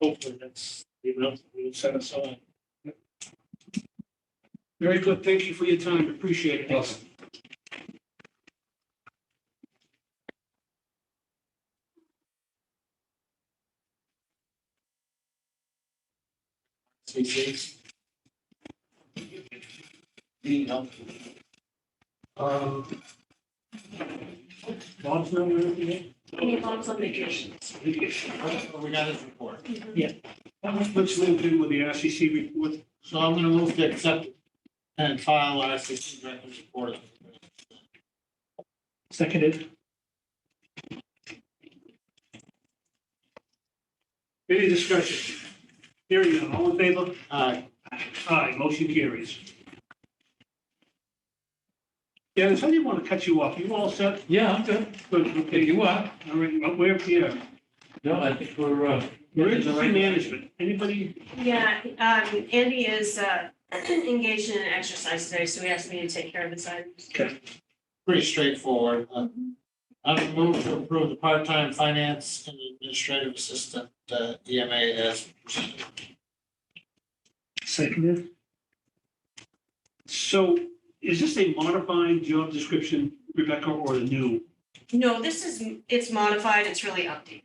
hopefully that's the amount that we'll set aside. Very good. Thank you for your time. Appreciate it. Awesome. CC. Need help? Um. Bob's not here yet? Any thoughts on vacation? We got his report. Let's move in with the RCC report. So I'm gonna move to accept and file our assistant director's report. Seconded. Any discussion? Hearing none, all in favor? Uh, Aye, motion carries. Dennis, I didn't want to cut you off. You all set? Yeah, I'm good. Good, If okay. you are, All right, well, we're here. no, I think we're, uh. Emergency management. Anybody? Yeah, um, Andy is, uh, engaged in an exercise today, so he asked me to take care of this item. pretty straightforward. Uh, I'm moved to approve the part-time finance and administrative assistant, uh, EMA as. presented. Seconded. So is this a modified job description, Rebecca, or a new? No, this is, it's modified, it's really updated.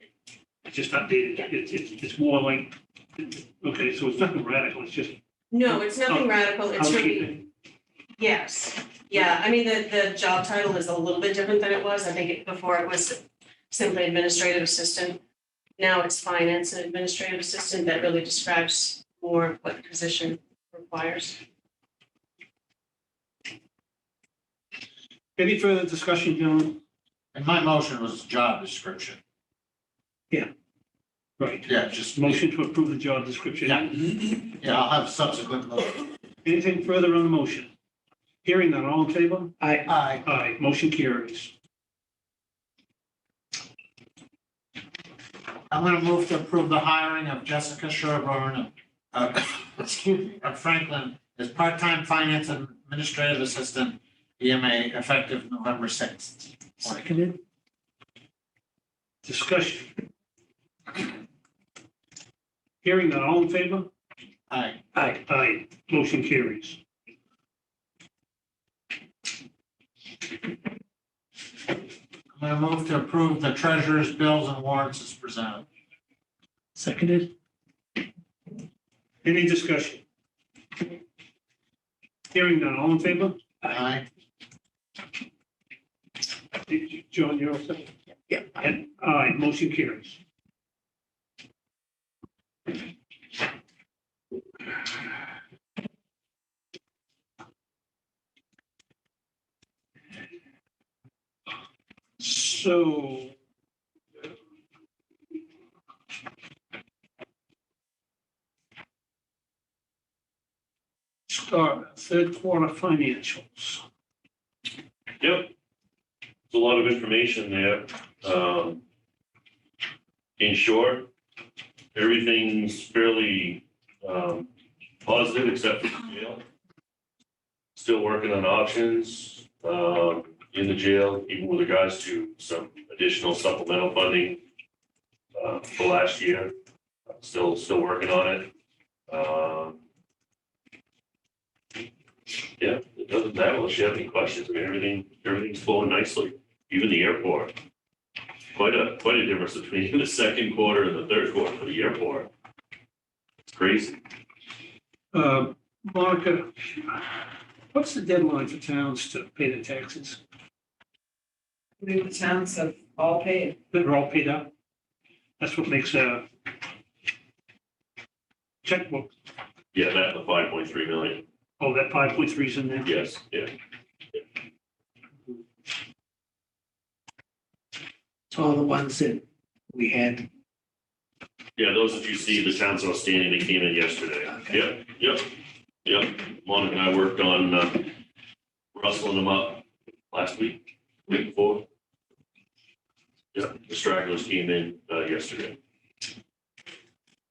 It's just updated. It's, it's, it's more like, okay, so it's nothing radical. It's just No, it's nothing radical, it's really, housekeeping. yes. Yeah, I mean, the, the job title is a little bit different than it was. I think it, before it was simply administrative assistant. Now it's finance and administrative assistant that really describes more of what the position requires. Any further discussion, gentlemen? And my motion was job description. Right. Yeah, just. Motion to approve the job description. Yeah. Yeah, I'll have subsequent motion. Anything further on the motion? Hearing none, all in favor? Aye. Aye. Aye, motion carries. I'm gonna move to approve the hiring of Jessica Sherburne of, uh, excuse me, of Franklin as part-time finance and administrative assistant, EMA, effective November sixth. Seconded. Discussion. Hearing none, all in favor? Aye. Aye. Aye, motion carries. I'm gonna move to approve the treasurer's bills and warrants as presented. Seconded. Any discussion? Hearing none, all in favor? Aye. John, you're all set? Yeah. And aye, motion carries. So. Start third quarter financials. Yep. There's a lot of information there. Um, In short, everything's fairly um, positive except for the jail. Still working on options um, in the jail, even with regards to some additional supplemental funding uh, for last year. Still, still working on it. Um, yeah, it doesn't matter unless you have any questions. I mean, everything, everything's flowing nicely, even the airport. Quite a, quite a difference between the second quarter and the third quarter for the airport. It's crazy. Uh, Monica, what's the deadline for towns to pay their taxes? I mean, the towns have all paid. They're all paid up? That's what makes a checkbook, Yeah, that and the five point three million. oh, that five point three's in there? Yes, yeah. It's all the ones that we had. Yeah, those that you see, the towns outstanding, they came in yesterday. Okay. Yep, yep, yep. Monica and I worked on uh, rustling them up last week, week before. Yep, the stragglers came in uh, yesterday.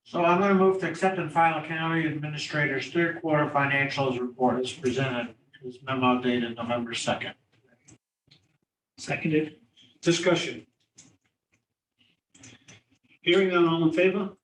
So I'm gonna move to accept and file county administrator's third quarter financials report as presented. This memo dated November second. Seconded. Discussion. Hearing none, all in favor?